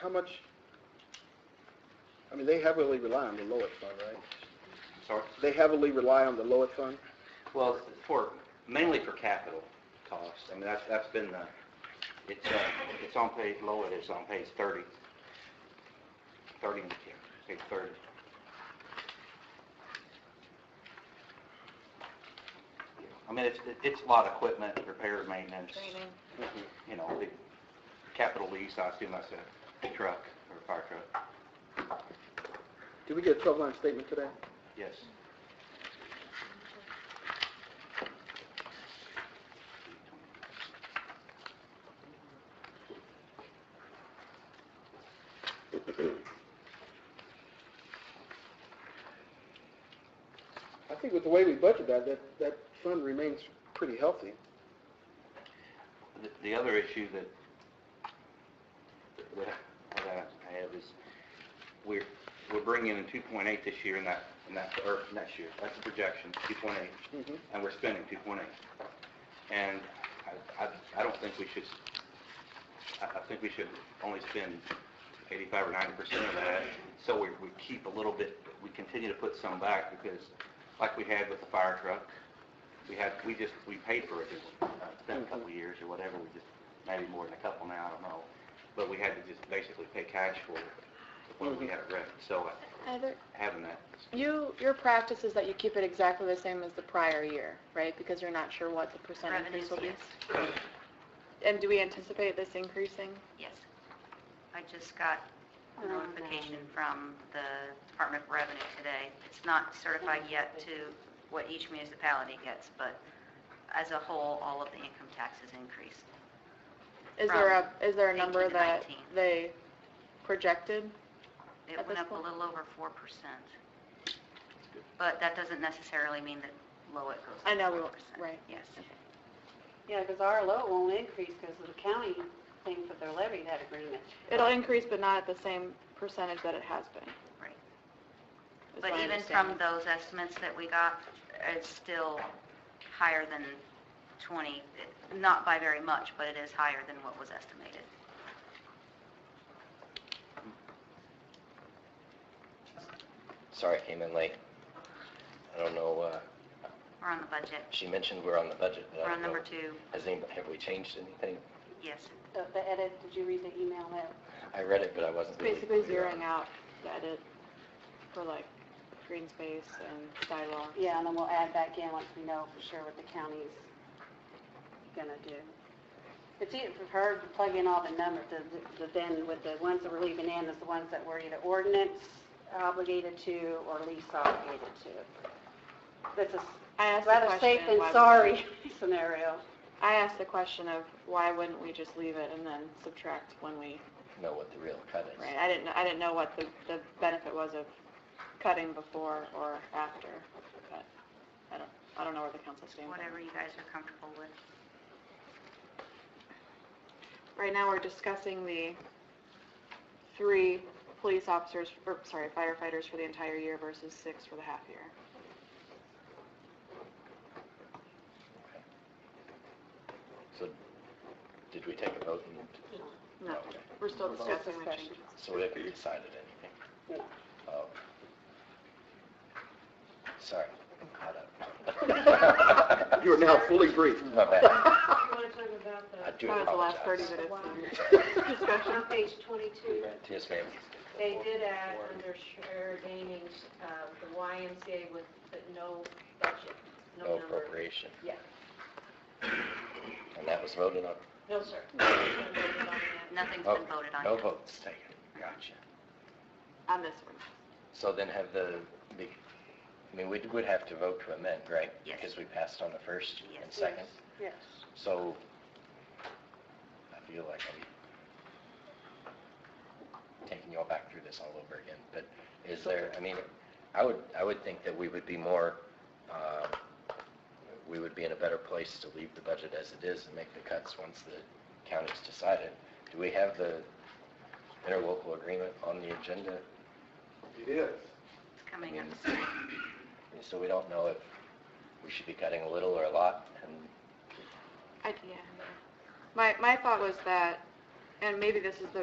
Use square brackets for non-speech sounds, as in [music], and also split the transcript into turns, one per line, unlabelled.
how much, I mean, they heavily rely on the Lowit Fund, right?
Sorry?
They heavily rely on the Lowit Fund?
Well, for, mainly for capital costs. I mean, that's, that's been the, it's, uh, it's on page, low it is on page 30. 30 in the kit, page 30. I mean, it's, it's a lot of equipment, repair, maintenance,
Mhm.
you know, the capital lease, I assume that's a truck or a fire truck.
Did we get a 12-line statement today?
Yes.
I think with the way we budgeted that, that, that fund remains pretty healthy.
The- The other issue that, that I- that I have is, we're, we're bringing in 2.8 this year and that, and that, or next year, that's the projection, 2.8,
Mhm.
and we're spending 2.8. And I, I, I don't think we should, I, I think we should only spend 85 or 90% of that, so we, we keep a little bit, we continue to put some back, because like we had with the fire truck, we had, we just, we paid for it, uh, it's been a couple of years or whatever, we just, maybe more than a couple now, I don't know, but we had to just basically pay cash for it when we had it ready, so uh,
Heather,
having that,
you, your practice is that you keep it exactly the same as the prior year, right? Because you're not sure what the percent increase
Revenues,
will be.
yes,
And do we anticipate this increasing?
yes. I just got
Oh,
a notification from the Department of Revenue today. It's not certified yet to what each municipality gets, but as a whole, all of the income taxes increased.
Is there a, is there a number
18 to
that
19.
they projected?
It
At
went
this
up a
point?
little over 4%. But that doesn't necessarily mean that Lowit goes up 4%.
I know we won't- right.
Yes.
Yeah, because our low won't increase because of the county thing for their levy, that agreement.
It'll increase, but not at the same percentage that it has been.
Right.
is
But
my
even
understanding.
from those estimates that we got, it's still higher than 20, not by very much, but it is higher than what was estimated.
Sorry I came in late. I don't know, uh,
We're on the budget.
she mentioned we're on the budget, but I
We're on
don't know.
number two,
Has anybody, have we changed anything?
yes.
The the edit, did you read the email that?
I read it, but I wasn't really
Basically
clear on
zeroing out the edit for like green space and sidewalk.
Yeah, and then we'll add back in once we know for sure what the county's gonna do. It's easy for her to plug in all the numbers, the- the- then with the ones that we're leaving in is the ones that we're either ordinance obligated to or lease obligated to. That's a s-
I asked the
rather safe
question,
than
why would-
[laughs] sorry scenario.
I asked the question of why wouldn't we just leave it and then subtract when we,
Know what the real cut is.
right? I didn't, I didn't know what the, the benefit was of cutting before or after the cut. I don't, I don't know where the council stands. on
Whatever you guys are comfortable with.
that. Right now, we're discussing the three police officers, or sorry, firefighters for the entire year versus six for the half year.
So, did we take a vote and,
No, we're still discussing the changes.
so we haven't decided anything?
No.
Oh. Sorry, I'm caught up.
[laughs] [laughs] You are now fully briefed.
My
[laughs]
bad.
want to talk about
[laughs] I do
That was the last 30
apologize.
minutes of
minutes.
discussion.
page 22,
Yes, ma'am.
They did add under shared gaming's, um, the YMCA with, but no budget,
No
no number.
appropriation.
Yeah.
And that was voted on?
No, sir. No voted on that.
Nothing's
Okay.
been voted on
No
yet.
votes taken. Gotcha.
On this one.
So then have the, the- I mean, we would have to vote to amend, right?
Yes.
Because we passed on the first and
Yes.
second.
yes.
So I feel like I'm taking you all back through this all over again. But is there, I mean, I would, I would think that we would be more, uh, we would be in a better place to leave the budget as it is and make the cuts once the county's decided. Do we have the interlocal agreement on the agenda?
It is.
It's coming up
Yes.
soon.
And So we don't know if we should be cutting a little or a lot, and
I, yeah. My, my thought was that, and maybe this is the